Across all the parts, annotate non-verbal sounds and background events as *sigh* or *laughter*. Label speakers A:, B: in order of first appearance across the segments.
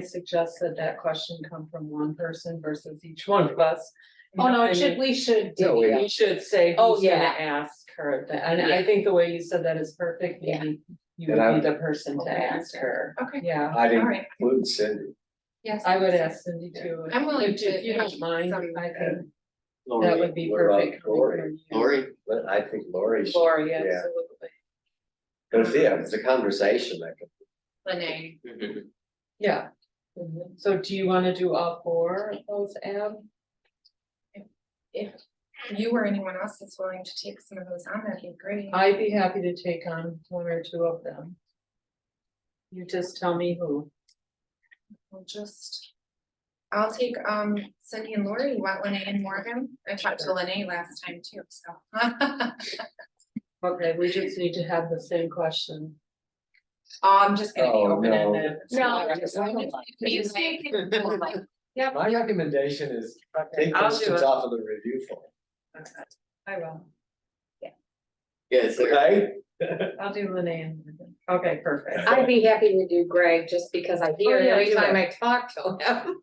A: I suggest that that question come from one person versus each one of us.
B: Oh, no, it
A: And
B: should, we should.
C: Yeah, we-
A: You should say
B: Oh,
A: who's gonna
B: yeah.
A: ask her, that. and I
B: Yeah.
A: think the way you said that is perfect,
B: Yeah.
A: maybe you
C: And I
A: would
C: would-
A: be the person to
B: Okay,
A: ask her,
D: Okay,
A: yeah.
C: I'd
D: all right.
C: include Cindy.
D: Yes.
A: I would ask Cindy too. if-
D: I'm willing
A: if-
D: to
A: If you don't
D: add
A: mind,
D: some-
A: I think that
C: Lori,
A: would be
C: what about
A: perfect. coming
C: Lori,
A: from you.
C: Lori, but I think Lori should,
A: Lori,
C: yeah.
A: absolutely.
C: but if, yeah, if it's a conversation, I
D: Lene,
C: could.
A: Yeah. Mhm. So do you wanna do all four of those, Ab?
D: you or anyone else that's willing to take some of those on, that'd be great.
A: I'd be happy to take on one or two of them. You just tell me who.
D: We'll just. I'll take um Cindy and Lori, you want Lene and Morgan? I talked to Lene last time too, so. *laughs* Oh,
A: Okay, we just need to have the same question.
D: I'm just gonna be
C: Oh,
D: open ended.
B: No.
D: You think
B: *laughs*
C: My recommendation is take
A: I'll do
C: questions
A: it.
C: off of the review form,
A: I will.
E: Yes,
C: okay?
A: I'll do Lynn. Okay, perfect.
C: *laughs*
B: I'd be happy to do Greg, just because I hear
A: Oh,
B: it
A: yeah,
B: every
A: do
B: time
A: it.
B: I talk to him.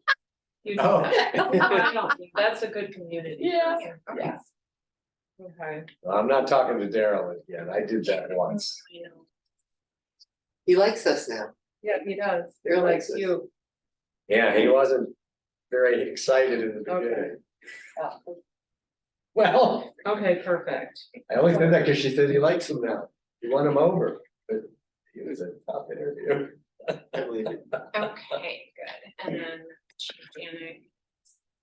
A: You do
C: Oh.
A: that. *laughs*
B: *laughs*
A: I don't- That's a good community.
B: Yeah.
D: Okay.
A: Okay.
C: I'm not talking to Daryl again, I did that once.
E: he likes us now.
A: Yeah, he does.
E: They're
A: They're like
E: like this.
A: you.
C: Yeah, he wasn't very excited in the
A: Okay.
C: beginning. Well,
A: Okay, perfect.
C: I only said that because she said he likes him now, he won him over, but he was a tough *laughs* interview.
E: I believe it.
D: Okay, good, and then Chief Janet.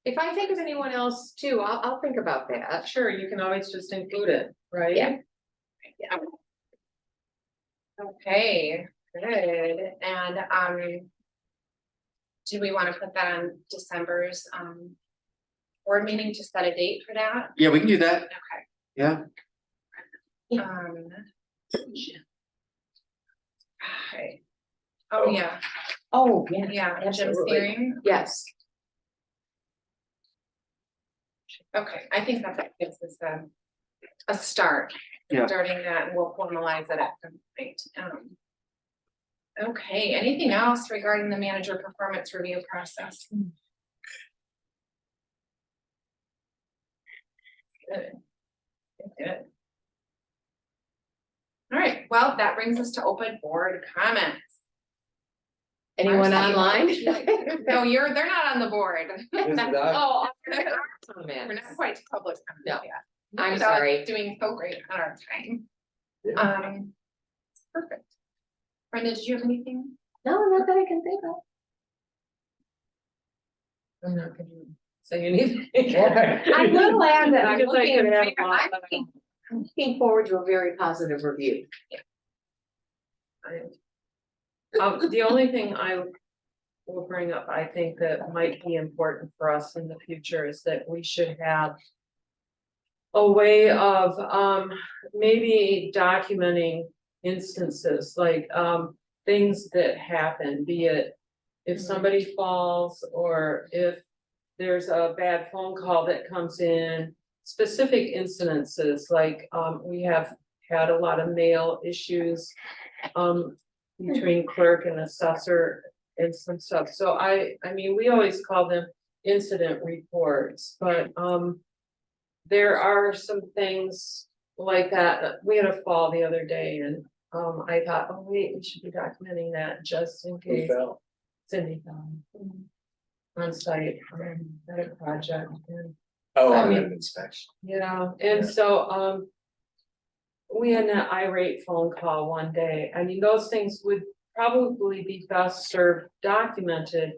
B: If I think of anyone else too, I'll, I'll think about that.
A: Sure, you can always just include it, right?
B: Yeah.
D: Okay, good, and, um. Do we wanna put that on December's, um. Board meeting to set a date for that?
E: Yeah, we can do that.
D: Okay.
E: Yeah.
B: Yeah.
D: Um. Hi. Oh,
C: Oh.
D: yeah,
B: Oh, yeah.
D: yeah, Jim's
B: absolutely.
D: hearing,
B: Yes,
D: okay, I think that that gives us a. A start,
E: Yeah.
D: starting that, and we'll formalize it at some point, um. Okay, anything else regarding the manager performance review process? Good. Good. All right, well, that brings us to open board comments.
B: anyone online?
D: Marcy.
B: *laughs*
D: No, you're, they're not on the board.
C: This
A: *laughs*
C: is not- *laughs*
B: Oh.
D: We're
B: Man,
D: not quite to public
B: No.
D: comment yet.
B: I'm
D: Without
B: sorry.
D: Doing so great on our time.
C: Yeah.
D: Um, perfect. Brenda, did you have anything?
B: No, not that I can think of.
A: I'm not gonna say anything. *laughs*
B: I'm
A: will
B: glad that I'm
A: Because I
B: looking
A: can
B: at
A: figure-
B: I'm
A: I
B: looking- I'm looking forward to a very positive review.
A: I- Um, the only thing I will bring up, I think that might be important for us in the future is that we should have. A way of, um, maybe documenting instances like, um, things that happen, be it. If somebody falls or if there's a bad phone call that comes in, specific incidences, like, um, we have had a lot of mail issues. Um, between clerk and assessor and some stuff, so I, I mean, we always call them incident reports, but, um. There are some things like that, we had a fall the other day and, um, I thought, oh, wait, we should be documenting that just in
C: Who
A: case
C: fell?
A: Cindy found. On site, um, at a project, and
C: Oh,
A: I
C: on
A: mean-
C: an inspection.
A: yeah, and
C: Yeah.
A: so, um. We had an irate phone call one day, I mean, those things would probably be best served documented.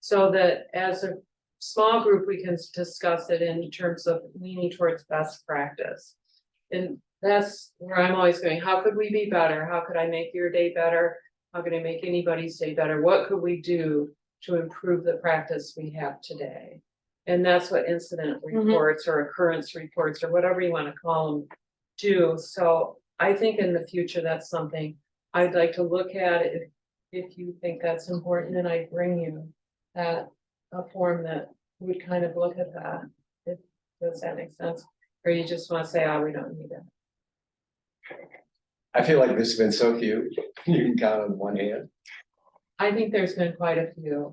A: So that as a small group, we can discuss it in terms of leaning towards best practice. And that's where I'm always going, how could we be better, how could I make your day better? How could I make anybody's day better, what could we do to improve the practice we have today? And that's what incident reports or occurrence reports or whatever you wanna call them do, so I think in the future, that's something I'd like to look at if. If you think that's important, and I bring you that, a form that would kind of look at that, if, does that make sense? Or you just wanna say, oh, we don't need that,
C: I feel *laughs* like this has been so few, you can count on one hand.
A: I think there's been quite a few.